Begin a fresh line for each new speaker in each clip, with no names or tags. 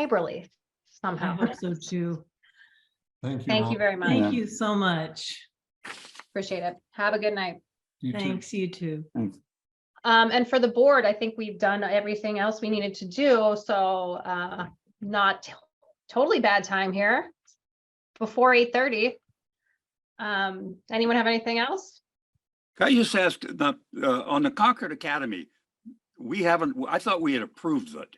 neighborly
I
somehow.
hope so too.
Thank you.
Thank you
Rob.
very much.
Yeah.
Thank you so much.
Appreciate it. Have a good night.
You too.
Thanks, you too.
Um, and for the board, I think we've done everything else we needed to do, so, uh, not totally bad time here. Before eight thirty. Um, anyone have anything else?
Can I just ask, the, uh, on the Concord Academy, we haven't, I thought we had approved it.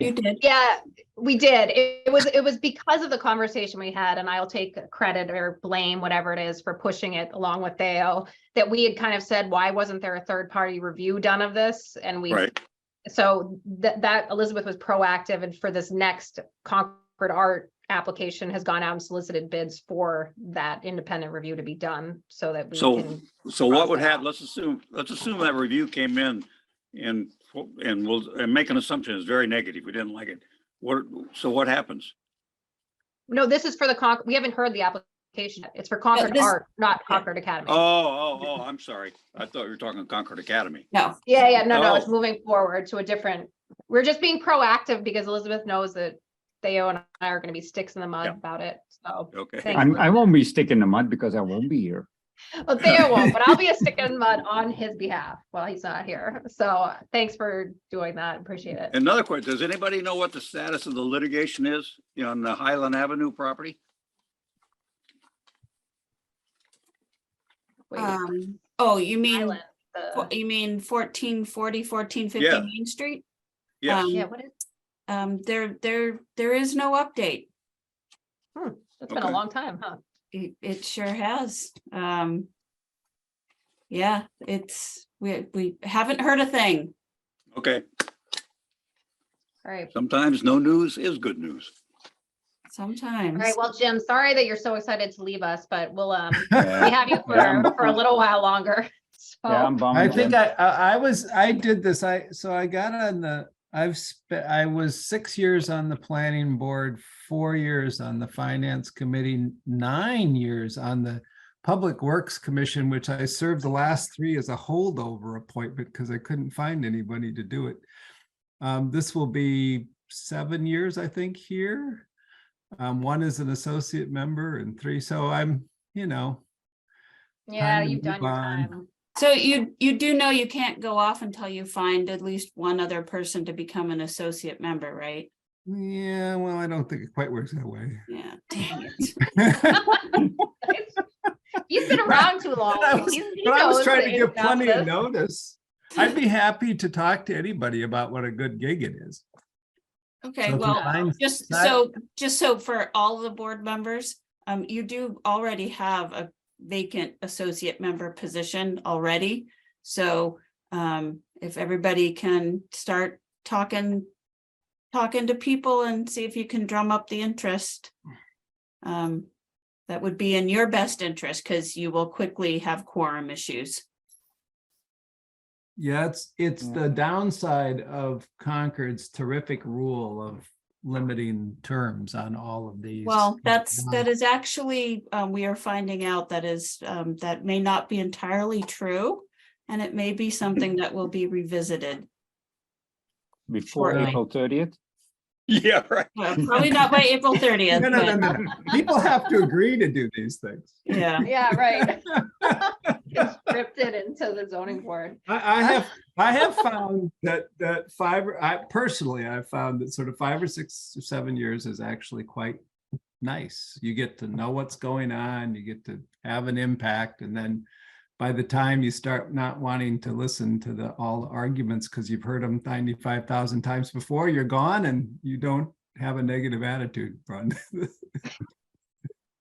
You did.
Yeah, we did. It it was, it was because of the conversation we had, and I'll take credit or blame, whatever it is, for pushing it along with Theo. That we had kind of said, why wasn't there a third party review done of this? And we
Right.
so that that Elizabeth was proactive and for this next Concord Art application has gone out and solicited bids for that independent review to be done so that we
So-
can.
So what would happen, let's assume, let's assume that review came in and, and we'll, and make an assumption is very negative. We didn't like it. What, so what happens?
No, this is for the Con, we haven't heard the application. yet. It's for Concord
this-
Art, not Concord Academy.
Oh, oh, oh, I'm sorry. I thought you were talking Concord Academy.
No,
Yeah, yeah, no, no, it's
Oh.
moving forward to a different, we're just being proactive because Elizabeth knows that Theo and I are gonna be sticks in the mud
Yeah.
about it, so.
Okay.
Thank-
I'm, I won't be sticking the mud because I won't be here.
Well, Theo won't, but I'll be a stick in the mud on his behalf while he's not here, so uh, thanks for doing that, appreciate it.
Another question, does anybody know what the status of the litigation is on the Highland Avenue property?
Wait,
um, oh, you mean,
Island, the-
fo- you mean fourteen forty, fourteen fifty
Yeah.
Main Street?
Yes,
Um,
Yeah, what is,
Um, there, there, there is no update.
it's hmm, been a
okay.
long time, huh?
It, it sure has. Um. Yeah, it's, we, we haven't heard a thing.
okay.
All right,
Sometimes no news is good news.
all
Sometimes.
right, well, Jim, sorry that you're so excited to leave us, but we'll, um, we
Yeah.
have you for,
Yeah.
for a little while longer, so.
Yeah, I'm bummed.
I think
Jen.
I, I, I was, I did this, I, so I got on the, I've, spe- I was six years on the planning board, four years on the finance committee, nine years on the Public Works Commission, which I served the last three as a holdover appointment because I couldn't find anybody to do it. Um, this will be seven years, I think, here. Um, one is an associate member and three, so I'm, you know,
Yeah,
to
you've done
move
your
on.
time.
So you, you do know you can't go off until you find at least one other person to become an associate member, right?
yeah, well, I don't think it quite works that way.
Yeah, dang it.
He's been around too long.
But I was-
He's- he
but I was
knows
trying
the
to
ins
give
and outs
plenty of
this.
notice. I'd be happy to talk to anybody about what a good gig it is.
Okay,
So if you
well,
find-
Just
That-
so, just so for all the board members, um, you do already have a vacant associate member position already. So, um, if everybody can start talking, talking to people and see if you can drum up the interest. Um, that would be in your best interest because you will quickly have quorum issues.
Yeah, it's, it's
Yeah.
the downside of Concord's terrific rule of limiting terms on all of these.
Well, that's, that is actually, um, we are finding out that is, um, that may not be entirely true. And it may be something that will be revisited,
Before
shortly.
April thirtieth.
Yeah, right.
Well, probably not by April
No,
thirtieth,
no, no,
but
no, no. People have to agree to do these things.
yeah.
Yeah, right. It's scripted into the zoning board.
I, I have, I have found that, that five, or- I personally, I've found that sort of five or six or seven years is actually quite nice. You get to know what's going on, you get to have an impact, and then by the time you start not wanting to listen to the, all the arguments, because you've heard them ninety-five thousand times before, you're gone and you don't have a negative attitude, Brun.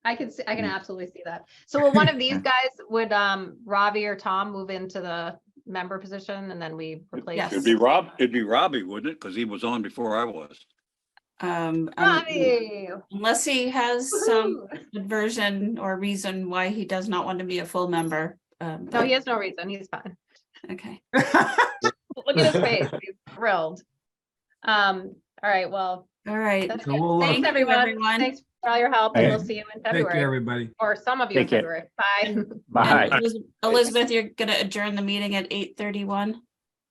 I can see,
Mm.
I can absolutely see that. So will one of these guys, would, um, Ravi or Tom move into the member position and then we replace?
Yes.
It'd be Rob, it'd be Robbie, wouldn't it? Because he was on before I was.
Um, un-
Ravi.
unless he has some
woohoo.
version or reason why he does not want to be a full member. Um,
No,
but-
he has no reason. He's fine.
Okay,
Look at his face. He's thrilled. Um, all right, well,
all right.
that's
So
good.
we'll, uh,
Thanks,
Thank you,
everyone.
everyone.
Thanks for all your help and
Okay.
we'll see you in
Take care,
February.
everybody.
or some of you in
Take care.
February. Bye.
And
Bye.
Eliz- Elizabeth, you're gonna adjourn the meeting at eight thirty-one?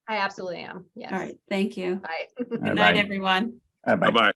I absolutely am. Yes.
All right, thank you.
Bye.
Good night, everyone.
Bye bye.
Bye-bye.